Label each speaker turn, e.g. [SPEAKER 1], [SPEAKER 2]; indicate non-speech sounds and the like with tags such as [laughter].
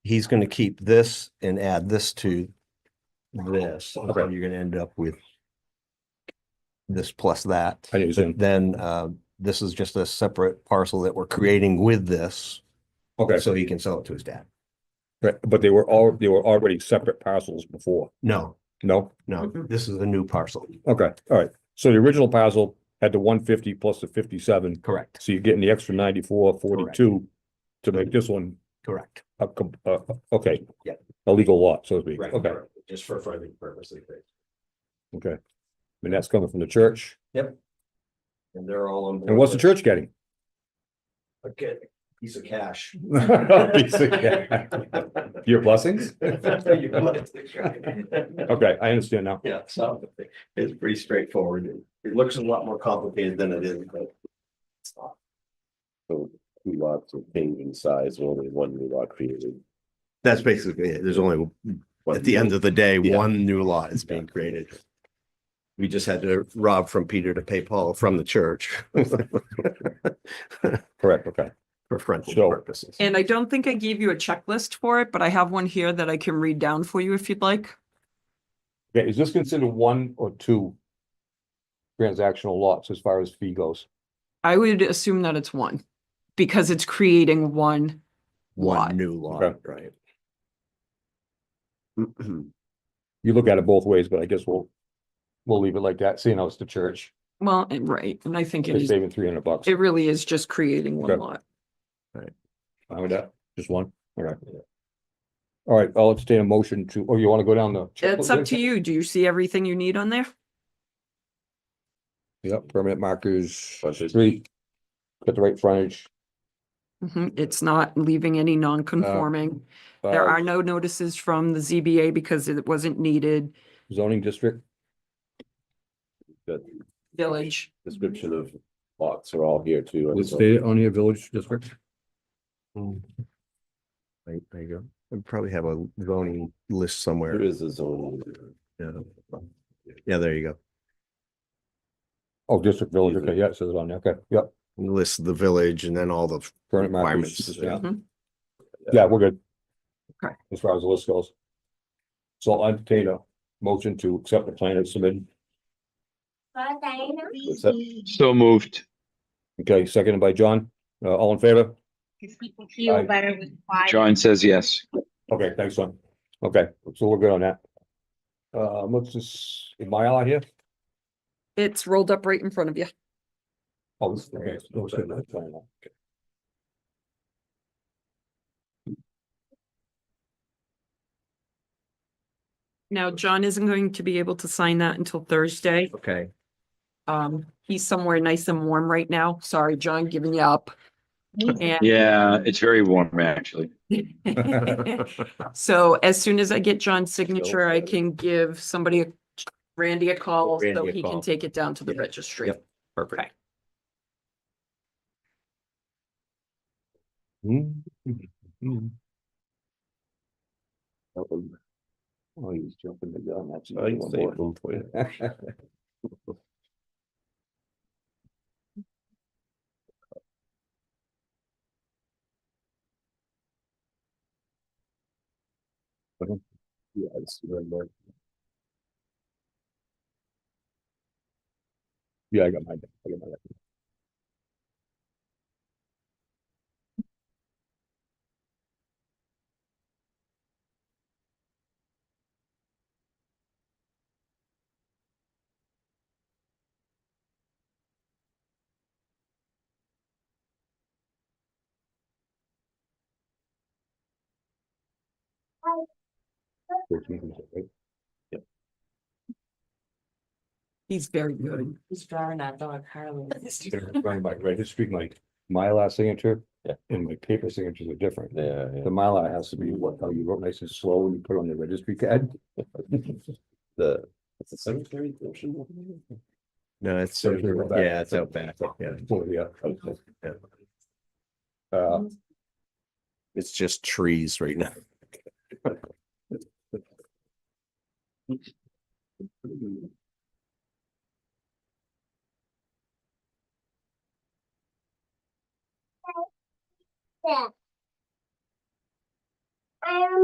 [SPEAKER 1] he's gonna keep this and add this to this, so
[SPEAKER 2] Oh, Okay.
[SPEAKER 1] you're gonna end up with this plus that.
[SPEAKER 2] I understand.
[SPEAKER 1] Then, uh, this is just a separate parcel that we're creating with this,
[SPEAKER 2] Okay,
[SPEAKER 1] so he can sell it to his dad.
[SPEAKER 2] right, but they were all, they were already separate parcels before,
[SPEAKER 1] No,
[SPEAKER 2] no?
[SPEAKER 1] no, this is a new parcel.
[SPEAKER 2] Okay, all right. So the original parcel had the one fifty plus the fifty-seven,
[SPEAKER 1] Correct,
[SPEAKER 2] so you're getting the extra ninety-four, forty-two to make this one
[SPEAKER 1] correct.
[SPEAKER 2] a, com- uh, okay.
[SPEAKER 1] Yeah.
[SPEAKER 2] A legal lot, so to speak.
[SPEAKER 3] Right,
[SPEAKER 2] Okay,
[SPEAKER 3] right, just for framing purposes. right.
[SPEAKER 2] okay. And that's coming from the church.
[SPEAKER 3] And they're all on. board
[SPEAKER 2] And what's the
[SPEAKER 3] with
[SPEAKER 2] church getting? [laughs]
[SPEAKER 3] A good piece of cash. [laughs]
[SPEAKER 2] Oh, [laughs] Your blessings?
[SPEAKER 3] You want to try.
[SPEAKER 2] Okay, I understand now.
[SPEAKER 3] Yeah, so it's pretty straightforward. It- It looks a lot more complicated than it is, but. it's not.
[SPEAKER 4] two lots of change in size, only one new lot created.
[SPEAKER 1] That's basically it. There's only, at the end of the day, one new lot is being created. We just had to rob from Peter to pay Paul from the
[SPEAKER 3] [laughs]
[SPEAKER 1] church
[SPEAKER 2] Correct, okay.
[SPEAKER 1] for frontage
[SPEAKER 2] So-
[SPEAKER 1] purposes.
[SPEAKER 5] And I don't think I gave you a checklist for it, but I have one here that I can read down for you if you'd like.
[SPEAKER 2] Okay, is this considered one or two transactional lots as far as fee goes?
[SPEAKER 5] I would assume that it's one because it's creating one.
[SPEAKER 1] One
[SPEAKER 5] Lot.
[SPEAKER 1] new lot,
[SPEAKER 2] Okay.
[SPEAKER 1] right?
[SPEAKER 2] You look at it both ways, but I guess we'll, we'll leave it like that, seeing how it's the church.
[SPEAKER 5] Well, and right, and I think it
[SPEAKER 2] They're
[SPEAKER 5] is,
[SPEAKER 2] saving three hundred bucks.
[SPEAKER 5] it really is just creating one
[SPEAKER 2] Okay.
[SPEAKER 5] lot.
[SPEAKER 2] Fine with that? Just one? All right. All right, I'll entertain a motion to, oh, you want to go down the.
[SPEAKER 5] It's up to you. Do you see everything you need on there?
[SPEAKER 2] Yep, permanent markers,
[SPEAKER 4] Frontage.
[SPEAKER 2] street, got the right frontage.
[SPEAKER 5] Mhm, It's not leaving any non-conforming. There
[SPEAKER 2] uh,
[SPEAKER 5] are no notices from the ZBA because it wasn't needed.
[SPEAKER 2] Zoning district,
[SPEAKER 4] [clears throat] The
[SPEAKER 5] Village,
[SPEAKER 4] description of lots are all here too.
[SPEAKER 2] is it stated on your village district?
[SPEAKER 1] There there you go. We probably have a zoning list
[SPEAKER 4] There
[SPEAKER 1] somewhere.
[SPEAKER 4] is a zone.
[SPEAKER 1] Yeah, Yeah, there you go.
[SPEAKER 2] Oh, district village, okay, yeah, it says it on there, okay, yep,
[SPEAKER 1] List the village and then all the
[SPEAKER 2] permanent markers,
[SPEAKER 1] Requirements,
[SPEAKER 2] yeah.
[SPEAKER 5] Mhm.
[SPEAKER 2] Yeah, we're good.
[SPEAKER 5] Okay.
[SPEAKER 2] As far as the list goes. So I'll entertain a motion to accept the plan as submitted.
[SPEAKER 4] What's that?
[SPEAKER 6] So moved.
[SPEAKER 2] Okay, seconded by John. Uh, all in favor?
[SPEAKER 7] Because people feel
[SPEAKER 2] Aye.
[SPEAKER 7] better with quiet.
[SPEAKER 6] John says yes.
[SPEAKER 2] Okay, thanks, John. Okay, so we're good on that. Uh, what's this, is my eye here?
[SPEAKER 5] it's rolled up right in front of you.
[SPEAKER 2] Oh, this- okay, it's- no, it's good, no, it's fine, okay.
[SPEAKER 5] Now, John isn't going to be able to sign that until Thursday.
[SPEAKER 1] Okay.
[SPEAKER 5] Um, he's somewhere nice and warm right now. Sorry, John, giving
[SPEAKER 1] [laughs]
[SPEAKER 5] you up. And
[SPEAKER 6] Yeah, it's very warm, actually.
[SPEAKER 5] so as soon as I get John's signature, I can give somebody, a- Randy a call so
[SPEAKER 1] Randy a
[SPEAKER 5] he can
[SPEAKER 1] call.
[SPEAKER 5] take it down to the registry.
[SPEAKER 1] Yep. Perfect.
[SPEAKER 2] Hmm, hmm.
[SPEAKER 4] That one.
[SPEAKER 2] Oh, he's jumping the gun, that's.
[SPEAKER 4] I can
[SPEAKER 2] one
[SPEAKER 4] save
[SPEAKER 2] more.
[SPEAKER 4] them
[SPEAKER 2] [laughs]
[SPEAKER 4] for you. Yeah, it's very much.
[SPEAKER 2] Yeah, I got my, I got my.
[SPEAKER 5] He's very good.
[SPEAKER 8] He's driving that dog Harley.
[SPEAKER 2] [laughs] Running my registry, my Mylar signature and my paper signatures are different.
[SPEAKER 4] Yeah, yeah.
[SPEAKER 2] The Mylar has to be what, how you wrote nice and slow and you put it on the registry pad.
[SPEAKER 4] The, it's a cemetery portion. over there?
[SPEAKER 1] No, it's,
[SPEAKER 2] So here we're back.
[SPEAKER 1] yeah, it's out back. Yeah.
[SPEAKER 2] Oh, yeah.
[SPEAKER 1] Yeah.
[SPEAKER 2] Uh,
[SPEAKER 4] Uh,
[SPEAKER 1] It's just trees right now.